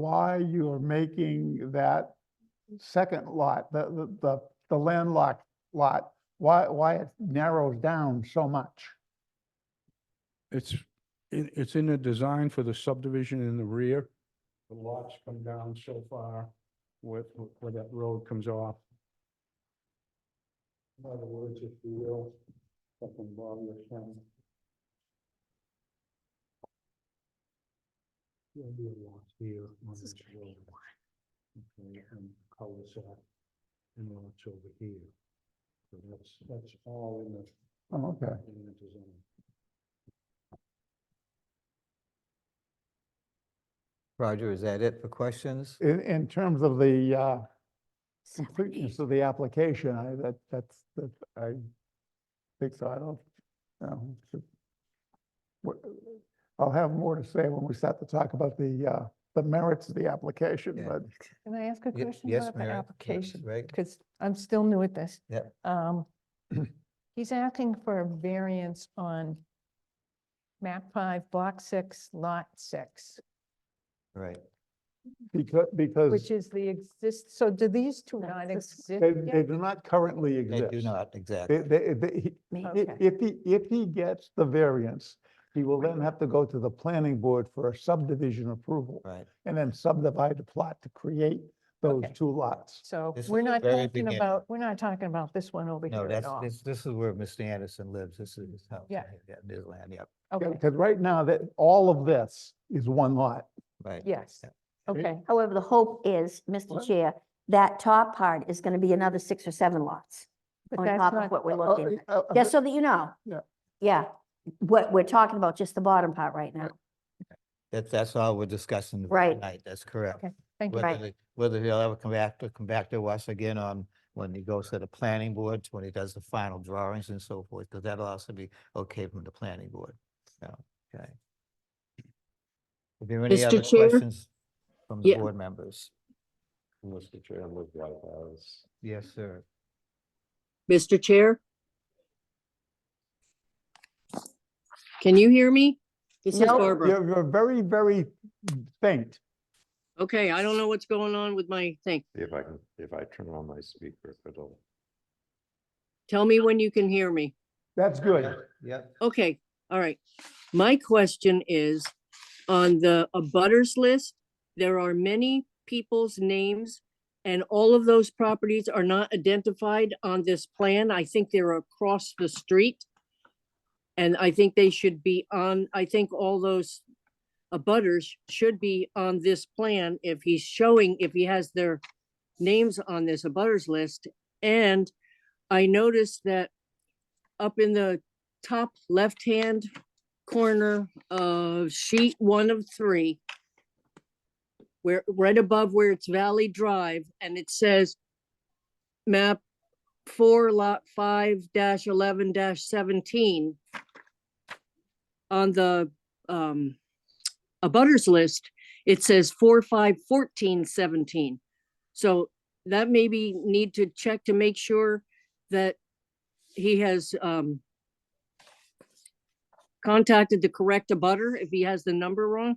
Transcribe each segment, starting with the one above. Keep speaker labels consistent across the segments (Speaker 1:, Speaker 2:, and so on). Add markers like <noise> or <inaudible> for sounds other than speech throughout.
Speaker 1: why you are making that second lot, the, the, the, the landlocked lot, why, why it narrows down so much?
Speaker 2: It's, in it's in the design for the subdivision in the rear. The lots come down so far with, where that road comes off. In other words, if you will, something Bob was saying. There'll be a lot here on this road. Okay, and cul-de-sac, and lots over here. So that's, that's all in the
Speaker 1: Oh, Okay,
Speaker 3: Roger, is that it for questions?
Speaker 1: in, in terms of the, uh, completeness of the application, I, that, that's, that, I think so, I don't, no. it's- what- I'll have more to say when we start to talk about the, uh, the merits of the application,
Speaker 3: Yeah.
Speaker 1: but
Speaker 4: Can I ask a
Speaker 3: Ye-
Speaker 4: question
Speaker 3: yes,
Speaker 4: about the
Speaker 3: Mary, yes,
Speaker 4: application?
Speaker 3: right.
Speaker 4: Because I'm still new at this.
Speaker 3: Yep. <clears throat>
Speaker 4: Um, He's asking for a variance on map five, block six, lot six,
Speaker 3: Right.
Speaker 1: because, because.
Speaker 4: which is the exist, so do these two
Speaker 5: That's
Speaker 4: not
Speaker 5: the-
Speaker 4: exist?
Speaker 1: They,
Speaker 4: yet?
Speaker 1: they do not currently
Speaker 3: They
Speaker 1: exist.
Speaker 3: do not,
Speaker 1: They,
Speaker 3: exactly.
Speaker 1: they, they, he-
Speaker 5: May-
Speaker 4: Okay.
Speaker 1: i- if he, if he gets the variance, he will then have to go to the planning board for a subdivision approval
Speaker 3: Right.
Speaker 1: and then subdivide the plot to create those
Speaker 4: Okay.
Speaker 1: two lots.
Speaker 4: So
Speaker 3: This is
Speaker 4: we're
Speaker 3: the
Speaker 4: not
Speaker 3: very
Speaker 4: talking
Speaker 3: beginning.
Speaker 4: about, we're not talking about this one over
Speaker 3: No,
Speaker 4: here at
Speaker 3: that's,
Speaker 4: all.
Speaker 3: this, this is where Mr. Anderson lives. This is his house.
Speaker 4: Yeah.
Speaker 3: right here, and His land, yep,
Speaker 4: Okay,
Speaker 1: Because right now, that, all of this is one lot.
Speaker 3: right.
Speaker 4: yes, okay,
Speaker 5: However, the hope is, Mr.
Speaker 1: What?
Speaker 5: Chair, that top part is going to be another six or seven lots.
Speaker 4: but
Speaker 5: On
Speaker 4: that's
Speaker 5: top of
Speaker 4: not,
Speaker 5: what we're
Speaker 1: Uh,
Speaker 5: looking at.
Speaker 1: uh,
Speaker 4: oh,
Speaker 1: uh,
Speaker 5: Just so that you know.
Speaker 1: Yeah.
Speaker 5: Yeah, what we're talking about, just the bottom part right now.
Speaker 3: That's, that's all we're discussing
Speaker 5: Right.
Speaker 3: tonight. That's correct.
Speaker 4: Okay, thank you.
Speaker 3: Whether, they- whether he'll ever come back to, come back to us again on, when he goes to the planning boards, when he does the final drawings and so forth, because that'll also be okay from the planning board. So, okay. Are there any
Speaker 6: Mr.
Speaker 3: other
Speaker 6: Chair?
Speaker 3: questions from the
Speaker 6: Yeah.
Speaker 3: board members?
Speaker 7: Mr. Chair, I'm with White House.
Speaker 3: Yes, sir.
Speaker 6: Mr. Chair? Can you hear me? This is
Speaker 5: No.
Speaker 6: Barbara.
Speaker 1: You're, you're very, very faint.
Speaker 6: Okay, I don't know what's going on with my thing.
Speaker 7: See if I can, if I turn on my speaker, it'll.
Speaker 6: Tell me when you can hear me.
Speaker 1: That's good.
Speaker 3: Yep.
Speaker 6: Okay, all right. My question is, on the abutters list, there are many people's names, and all of those properties are not identified on this plan. I think they're across the street. And I think they should be on, I think all those abutters should be on this plan if he's showing, if he has their names on this abutters list. And I noticed that up in the top left-hand corner of sheet one of three, where, right above where it's Valley Drive, and it says map four lot five dash eleven dash seventeen on the, um, abutters list, it says four, five, fourteen, seventeen. So that maybe need to check to make sure that he has, um, contacted the correct abutter if he has the number wrong?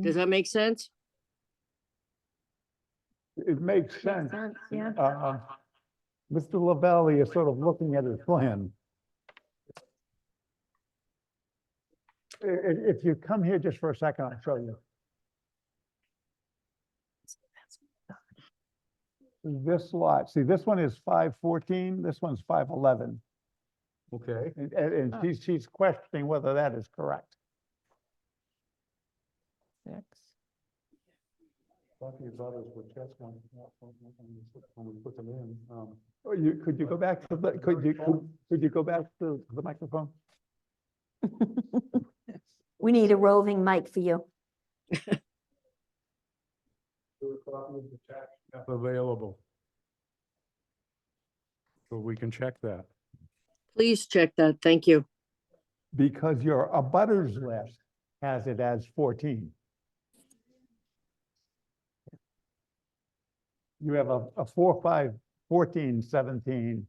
Speaker 6: Does that make sense?
Speaker 1: It makes sense.
Speaker 5: Yeah.
Speaker 1: Uh, Mr. Lavalley is sort of looking at his plan. I- i- If you come here just for a second, I'll show you. This lot, see, this one is five fourteen, this one's five eleven,
Speaker 2: Okay.
Speaker 1: and, and and
Speaker 4: Oh.
Speaker 1: she's, she's questioning whether that is correct.
Speaker 4: Six.
Speaker 2: Lucky brothers were chess one, when we put them in, um.
Speaker 1: Or you, could you go back to the, could you, could- could you go back to the microphone?
Speaker 5: We need a roving mic for you.
Speaker 2: There were copies of the tax map available. So we can check that.
Speaker 6: Please check that. Thank you.
Speaker 1: Because your abutters list has it as fourteen. You have a, a four, five, fourteen, seventeen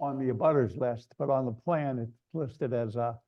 Speaker 1: on the abutters list, but on the plan, it's listed as a